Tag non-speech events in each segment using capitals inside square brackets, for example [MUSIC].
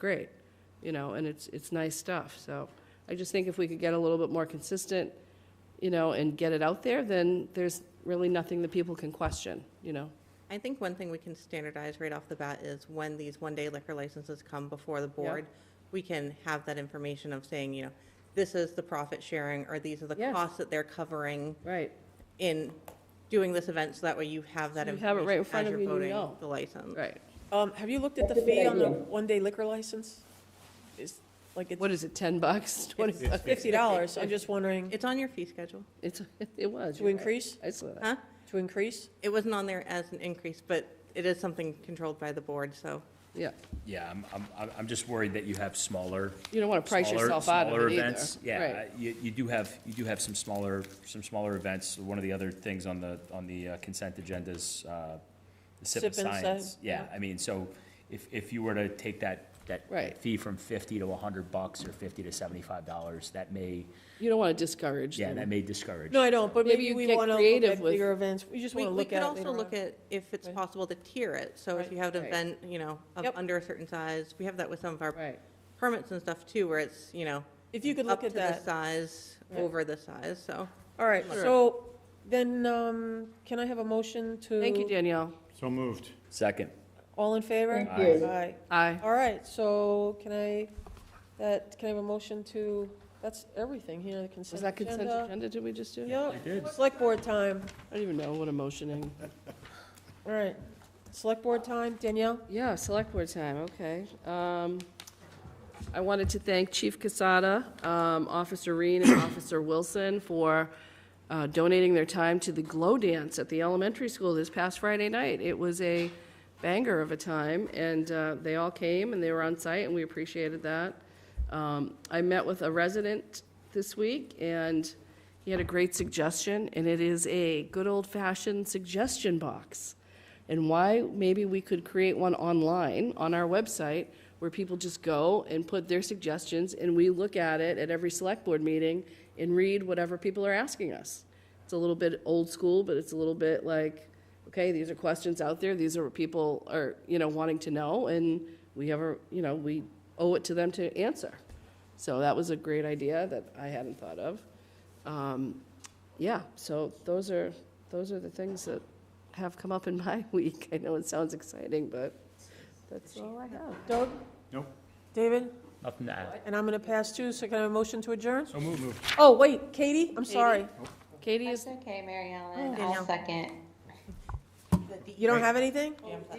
great, you know, and it's, it's nice stuff. So I just think if we could get a little bit more consistent, you know, and get it out there, then there's really nothing that people can question, you know? I think one thing we can standardize right off the bat is when these one-day liquor licenses come before the board, we can have that information of saying, you know, this is the profit sharing, or these are the Yes. costs that they're covering Right. in doing this event, so that way you have that You have it right in information front as of you're you and you voting know. the license. Right. Um, have you looked at the fee on the one-day liquor license? Is, like, What it's is it, 10 bucks, [LAUGHS] 20 bucks? fifty dollars, I'm just wondering, It's on your fee schedule, It's, it was. to you're right. increase, I saw that. huh? to increase? It wasn't on there as an increase, but it is something controlled by the board, so Yeah. Yeah, I'm, I'm, I'm- I'm just worried that you have smaller. You don't wanna price smaller- yourself out of smaller it either. events. Yeah, uh, Right. you, you do have, you do have some smaller, some smaller events. One of the other things on the, on the uh, consent agenda is, uh, the sip and Sip and science. Science, Yeah, yeah. I mean, so if, if you were to take that, that that Right. fee from fifty to a hundred bucks or fifty to seventy-five dollars, that may, You don't want to discourage yeah, that them. may discourage. No, I don't, but Maybe maybe you we get wanna look creative at with- bigger events, we just We, wanna we look could at it also later look on. at if it's Right. possible to tier it, so if Right. you have an Right. event, you know, of Yep. under a certain size, we have that with some of our Right. permits and stuff too, where it's, you know, If you could up look to at the that. size, Right. over the size, so. All right, Sure. so then, um, can I have a motion to? Thank you, Danielle. So moved. Second. All in favor? Thank you. Aye. Aye. All right, so can I, that, can I have a motion to, that's everything here, the Was consent that consent agenda? agenda? Did we just do? Yeah, select board time, I don't even know what I'm motioning. all right, select board time, Danielle? Yeah, select board time, okay. Um, I wanted to thank Chief Casada, um, Officer Reen, and [COUGHS] Officer Wilson for uh, donating their time to the Glow Dance at the elementary school this past Friday night. It was a banger of a time, and uh, they all came, and they were on site, and we appreciated that. Um, I met with a resident this week, and he had a great suggestion, and it is a good old-fashioned suggestion box and why maybe we could create one online on our website where people just go and put their suggestions and we look at it at every select board meeting and read whatever people are asking us. It's a little bit old school, but it's a little bit like, okay, these are questions out there, these are what people are, you know, wanting to know, and we ever, you know, we owe it to them to answer. So that was a great idea that I hadn't thought of. Um, yeah, so those are, those are the things that have come up in my [LAUGHS] week. I know it sounds exciting, but that's all I have. Doug? Nope. David? Nothing to add. And I'm going to pass too, so can I have a motion to adjourn? So moved. Oh, wait, Katie, I'm sorry. Katie It's is, okay, Mary Ellen. Danielle. I'll second. You don't have anything?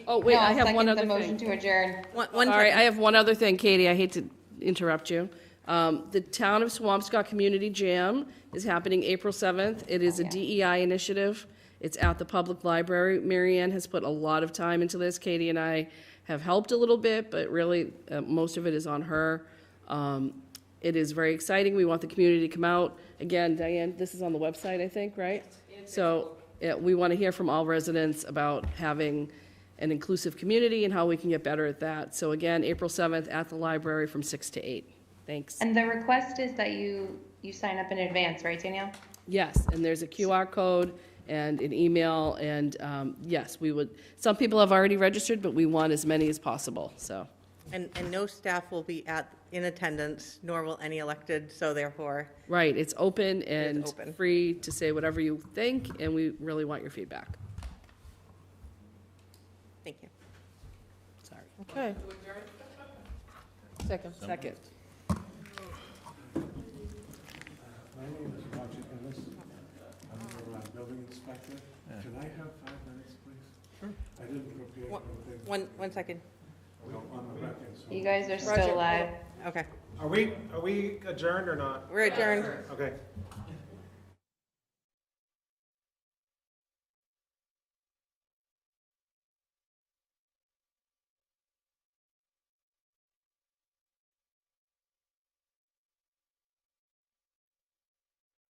oh, wait, No, I I'll have one second other The motion thing. to adjourn. One, one Sorry, second. I have one other thing, Katie, I hate to interrupt you. Um, The Town of Swampscott Community Jam is happening April 7th. It is a DEI initiative. It's at the public library. Mary Ann has put a lot of time into this. Katie and I have helped a little bit, but really, uh, most of it is on her. Um, It is very exciting. We want the community to come out. Again, Diane, this is on the website, I think, right? So, yeah, we want to hear from all residents about having an inclusive community and how we can get better at that. So again, April 7th at the library from 6 to 8. Thanks. And the request is that you, you sign up in advance, right, Danielle? Yes, and there's a QR code and an email, and um, yes, we would, some people have already registered, but we want as many as possible, so. And, and no staff will be at, in attendance, nor will any elected, so therefore, Right, it's open and open. free to say whatever you think, and we really want your feedback. thank you. Sorry. Okay. Second. Second. My name is Roger Ennis. I'm the uh, building inspector. Can I have five minutes, please? Sure. I didn't prepare What- anything One, one second, on the record, so. You guys are still live. okay. Are we, are we adjourned or not? We're adjourned. Okay.